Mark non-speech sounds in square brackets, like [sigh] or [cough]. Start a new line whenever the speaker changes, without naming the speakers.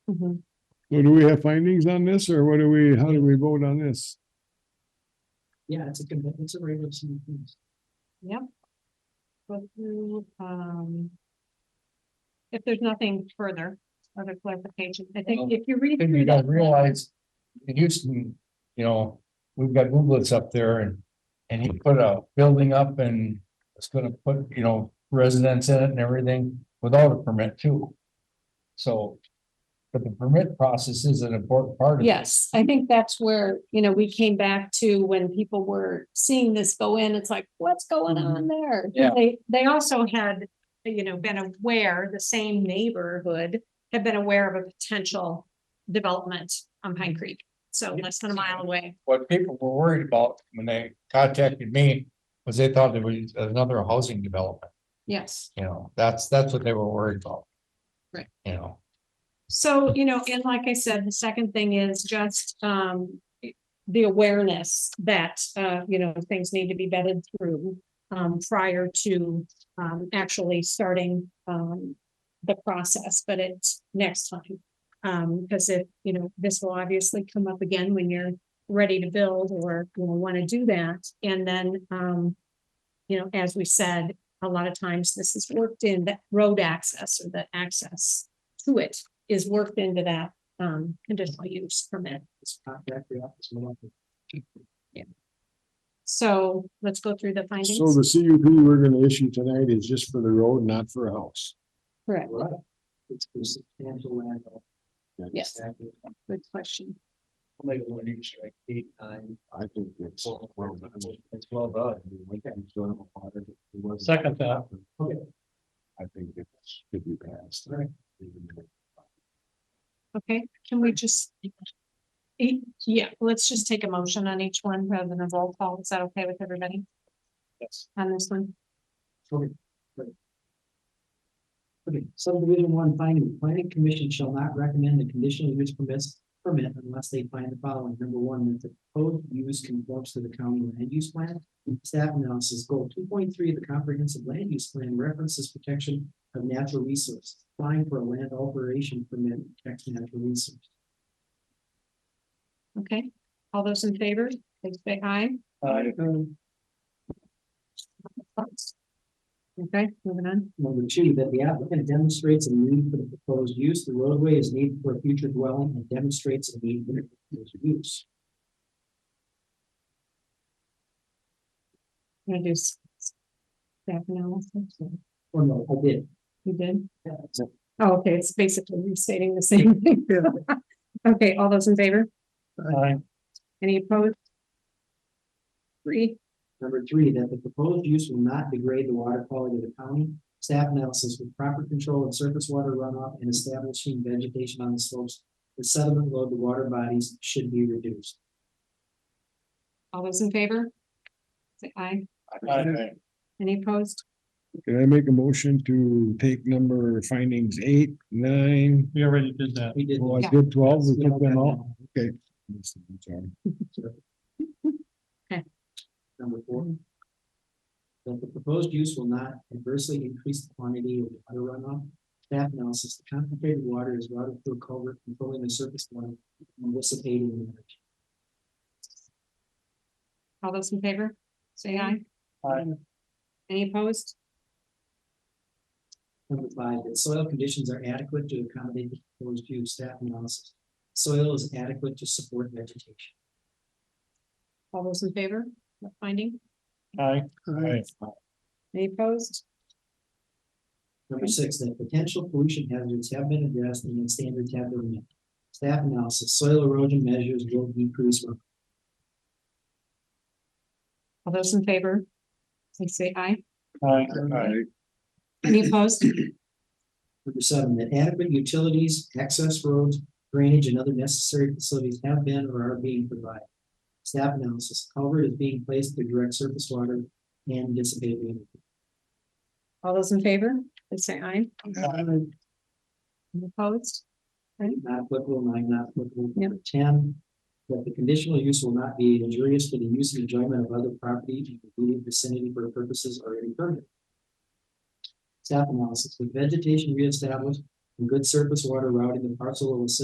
Mhm.
Well, do we have findings on this or what do we, how do we vote on this?
Yeah, it's a good, it's a regular. season thing.
Go through, um. If there's nothing further, other clarification, I think
Well,
if you read.
Then
through
you gotta
that-
realize, in Houston, you know, we've got Googlets up there and, and he put a building up and it's gonna put, you know, residents in it and everything without a permit too. So, but the permit process is an important part of it.
Yes, I think that's where, you know, we came back to when people were seeing this go in, it's like, what's going on there?
Yeah.
They, they also had, you know, been aware, the same neighborhood had been aware of a potential development on Pine Creek. So less than a mile away.
What people were worried about when they contacted me was they thought there was another housing development,
Yes.
you know, that's, that's what they were worried about.
Right.
You know.
So, you know, and like I said, the second thing is just um the awareness that uh, you know, things need to be vetted through um prior to um actually starting um the process, but it's next time. Um, because if, you know, this will obviously come up again when you're ready to build or you know, want to do that. And then um you know, as we said, a lot of times this is worked in the road access or the access to it is worked into that um conditional use permit. So let's go through the
So
findings.
the CUP we're gonna issue tonight is just for the road, not for a house.
Correct,
It's for substantial land.
yes, good question.
Like one inch, like eight, nine.
I think it's. well done.
It's well done.
Second
that. Okay.
I think it should be passed.
Right.
Okay, can we just? E- Yeah, let's just take a motion on each one rather than a roll call. Is that okay with everybody
Yes.
on this one?
Okay. Okay, subdivision one finding, the planning commission shall not recommend the conditional use permits permit unless they find the following. Number one, that the proposed use conforms to the county land use plan. Staff analysis goal two point three, the comprehensive land use plan references protection of natural resources. Applying for a land alteration permit protects natural resources.
Okay, all those in favor, please say aye.
Um,
Okay, moving on.
Number two, that the applicant demonstrates a need for the proposed use, the roadway is needed for a future dwelling and demonstrates a need for the proposed use.
I'm gonna do s- staff analysis.
Oh, no, I did.
You did?
That's it.
Oh, okay, it's basically restating the same
[laughs]
thing. Okay, all those in favor? Any opposed? Three,
Number three, that the proposed use will not degrade the water quality of the county. Staff analysis with proper control of surface water runoff and establishing vegetation on the slopes. The sediment load, the water bodies should be reduced.
all those in favor? Say aye.
Uh,
Any opposed?
Can I make a motion to take number findings eight, nine?
We already did that. We did.
Oh, I
Yeah.
did twelve, we took them all, okay. Sorry.
Number four. That the proposed use will not adversely increase the quantity of water runoff. Staff analysis, the concentrated water is routed through a culvert controlling the surface water and dissipating the energy.
All those in favor? Say aye. Any opposed?
Number five, that soil conditions are adequate to accommodate the proposed use staff analysis. Soil is adequate to support vegetation.
All those in favor? That Finding?
Aye.
Any opposed?
Number six, that potential pollution hazards have been addressed and that standards have been met. Staff analysis, soil erosion measures will decrease. runoff.
All those in favor? Please say aye.
Number
Any opposed?
seven, that adequate utilities, access roads, drainage, and other necessary facilities have been or are being provided. Staff analysis, culvert is being placed to direct surface water and dissipate the energy.
All those in favor? Please say aye. Any opposed?
not applicable, nine not applicable.
Yep.
Number Ten, that the conditional use will not be injurious to the use and enjoyment of other property in the immediate vicinity for purposes already permitted. Staff analysis, with vegetation reestablished and good surface water routing the parcel will assist